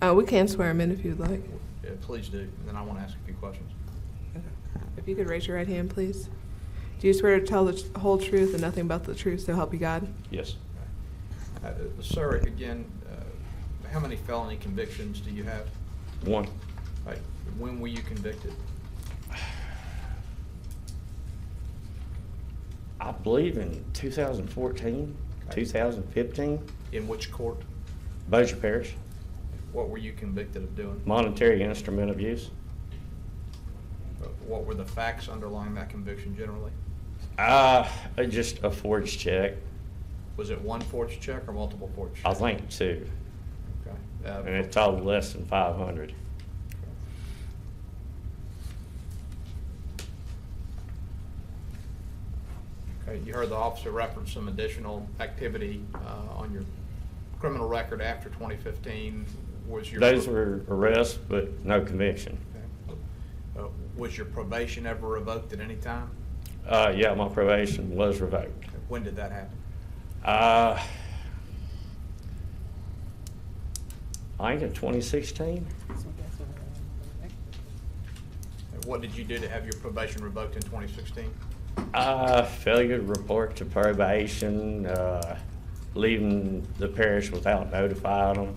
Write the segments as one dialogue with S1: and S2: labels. S1: Uh, we can swear him in if you'd like.
S2: Yeah, Uh, Please do, and then I want to ask a few questions.
S1: If you could raise your right hand, please. Do you swear to tell the tr- whole truth and nothing but the truth, so help you God?
S3: Yes.
S2: Uh, Sir, again, uh, how many felony convictions do you have?
S3: One.
S2: Like, When were you convicted?
S3: I believe in 2014,
S2: Okay.
S3: 2015,
S2: In which court?
S3: Bossier Parish,
S2: What were you convicted of doing?
S3: monetary instrument abuse.
S2: Uh, What were the facts underlying that conviction generally?
S3: Uh, just a forged check,
S2: Was it one forged check or multiple forged?
S3: I
S2: checks?
S3: think two,
S2: Okay. Uh,
S3: and it totaled less than 500.
S2: Okay, you heard the officer reference some additional activity uh, on your criminal record after 2015. Was your?
S3: Those were arrests, but no conviction.
S2: Okay. Uh, Was your probation ever revoked at any time?
S3: Uh, yeah, my probation was revoked.
S2: When did that happen?
S3: Uh, I think in 2016,
S2: And What did you do to have your probation revoked in 2016?
S3: Uh, failure to report to probation, uh, leaving the parish without notifying them.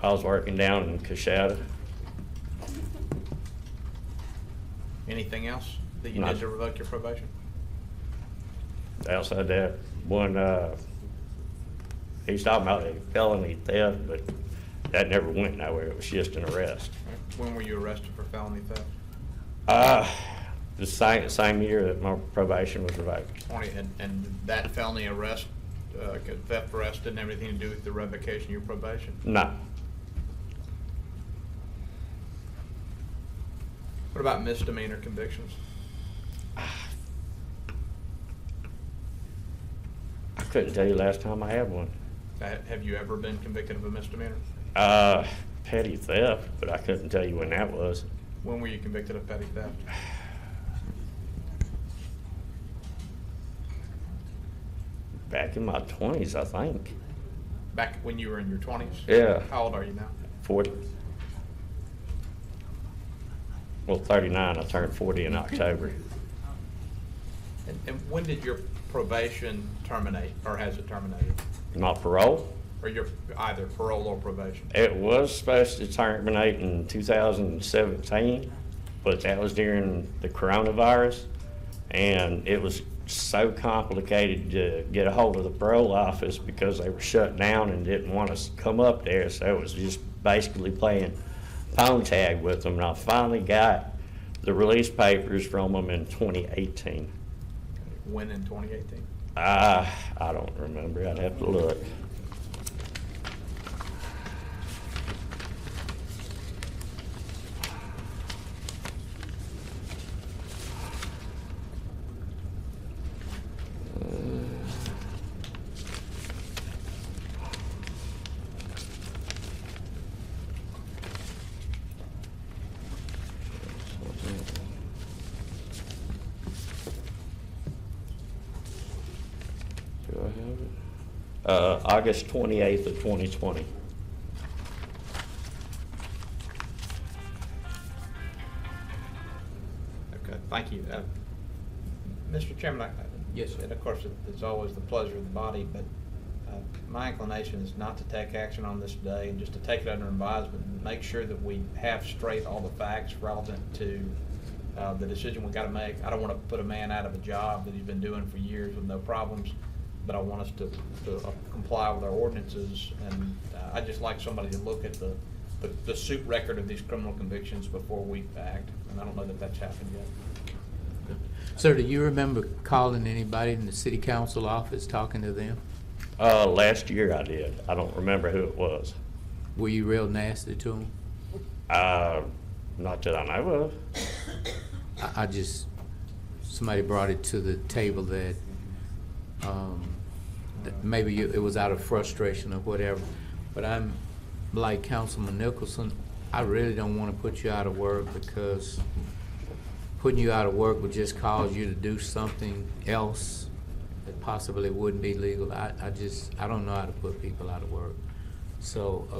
S3: I was working down in Coshada.
S2: Anything else that you
S3: No.
S2: did to revoke your probation?
S3: Outside that, one, uh, he's talking about a felony theft, but that never went nowhere. It was just an arrest.
S2: When were you arrested for felony theft?
S3: Uh, the same, same year that my probation was revoked.
S2: 20, and, and that felony arrest, uh, theft arrest didn't have anything to do with the revocation of your probation?
S3: No,
S2: What about misdemeanor convictions?
S3: I couldn't tell you last time I had one.
S2: Ha- Have you ever been convicted of a misdemeanor?
S3: Uh, petty theft, but I couldn't tell you when that was.
S2: When were you convicted of petty theft?
S3: Back in my twenties, I think.
S2: Back when you were in your 20s?
S3: Yeah.
S2: How old are you now?
S3: Forty. Well, thirty-nine. I turned forty in October.
S2: And, and when did your probation terminate, or has it terminated?
S3: My parole,
S2: Or your, either parole or probation?
S3: it was supposed to terminate in two thousand and seventeen, but that was during the coronavirus. And it was so complicated to get a hold of the parole office because they were shut down and didn't want us to come up there. So it was just basically playing phone tag with them. And I finally got the release papers from them in twenty eighteen.
S2: When in 2018?
S3: I, Ah, I don't remember. I'd have to look. Do I have it? Uh, August 28th of 2020.
S2: Okay, thank you. Uh, Mr. Chairman, I. Yes. And of course, it- it's always the pleasure of the body, but uh, my inclination is not to take action on this today and just to take it under advisement and make sure that we have straight all the facts relevant to uh, the decision we got to make. I don't want to put a man out of a job that he's been doing for years with no problems, but I want us to to uh, comply with our ordinances. And uh, I'd just like somebody to look at the, the- the suit record of these criminal convictions before we act, and I don't know that that's happened yet.
S4: Sir, do you remember calling anybody in the city council office, talking to them?
S3: Uh, last year I did. I don't remember who it was.
S4: Were you real nasty to them?
S3: Uh, not that I know of.
S4: I, I just, somebody brought it to the table that, um, that maybe you- it was out of frustration or whatever. But I'm, like Councilman Nicholson, I really don't want to put you out of work because putting you out of work would just cause you to do something else that possibly wouldn't be legal. I, I just, I don't know how to put people out of work. So uh,